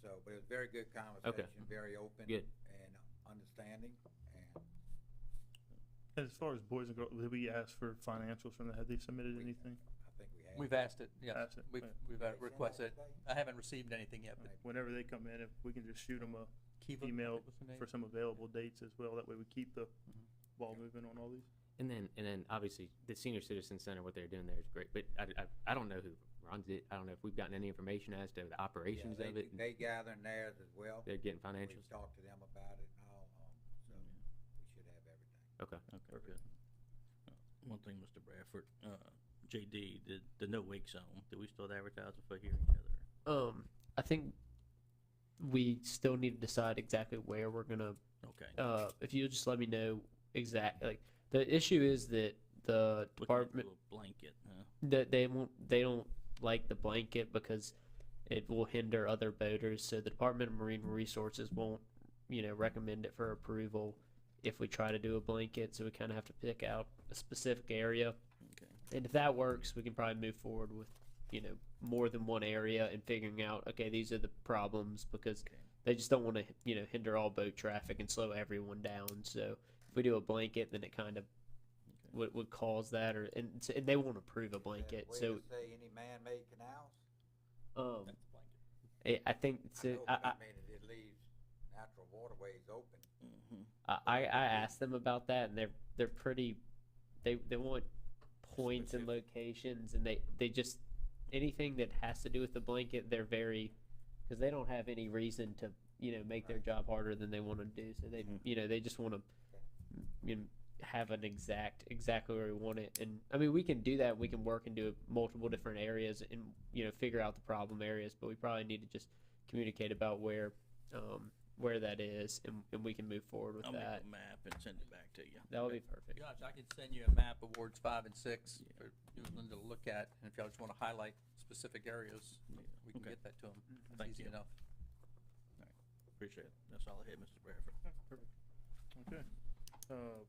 but it was very good conversation, very open. Good. And uh, understanding, and As far as boys and girls, did we ask for financials from them? Have they submitted We- anything? I think we had. We've asked it, yes, Asked it, we've, yeah. we've Did they uh, send that requested, today? I haven't received anything yet, but Right. Whenever they come in, if we can just shoot them a, Kiva, I Email think was the name. for some available dates as well, that way we keep the ball moving on all these. And then, and then obviously the senior citizen center, what they're doing there is great, but I, I, I don't know who runs it. I don't know if we've gotten any information as to the Yeah, operations they- of it. and They gathering theirs as well. They're getting We've financials. Talked to them about it and all, um, so we should have everything. Okay, good. Uh, One thing, Mr. Bradford, uh, JD, the, the no wake zone, do we still advertise it for here and there? Um, I think we still need to decide exactly where we're gonna. Okay, Uh, if you just let me know exact like the issue is that the looking at the department little blanket, huh? that they won't they don't like the blanket because it will hinder other boaters. So the Department of Marine Resources won't you know recommend it for approval if we try to do a blanket. So we kind of have to pick out a specific area. Okay. And if that works, we can probably move forward with, you know, more than one area and figuring out, okay, these are the problems because Okay. they just don't want to, you know, hinder all boat traffic and slow everyone down. So if we do a blanket, then it kind of would, would cause that, or and, so- and they won't approve a blanket. Way So to Say any man-made canals? um, That's the blanket. I I think so. know, I, but I, mean, it- it leaves natural waterways open. Mhm. I, I asked them about that, and they're they're pretty. They they want points and locations, and they they just anything that has to do with the blanket, they're very because they don't have any reason to you know make their Right. job harder than they want to do. So they Mhm. you know they just want to you know, have an exact exactly where we want it, and I mean we can do that. We can work into multiple different areas and you know figure out the problem areas, but we probably need to just communicate about where. Um, where that is, and, and we can move forward with I'll that. make a map and send it back to you. That would be perfect. Josh, I can send you a map of wards five and six for you and Linda to look at, and if y'all just wanna highlight specific areas, Yeah, we can okay. Mm-hmm. get that to them. That's Thank easy you. enough. Appreciate it. That's all I had, Mr. Bradford. Okay. Uh,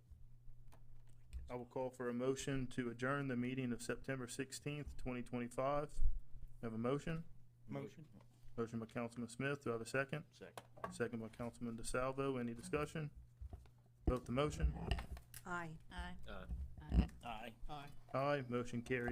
I will call for a motion to adjourn the meeting of September sixteenth, twenty twenty-five. Have a motion? Motion? Motion by Councilman Smith. Do I have a second? Second. Second by Councilman DeSalvo. Any discussion? Vote the motion. Aye. Aye. Aye. Aye. Motion carries.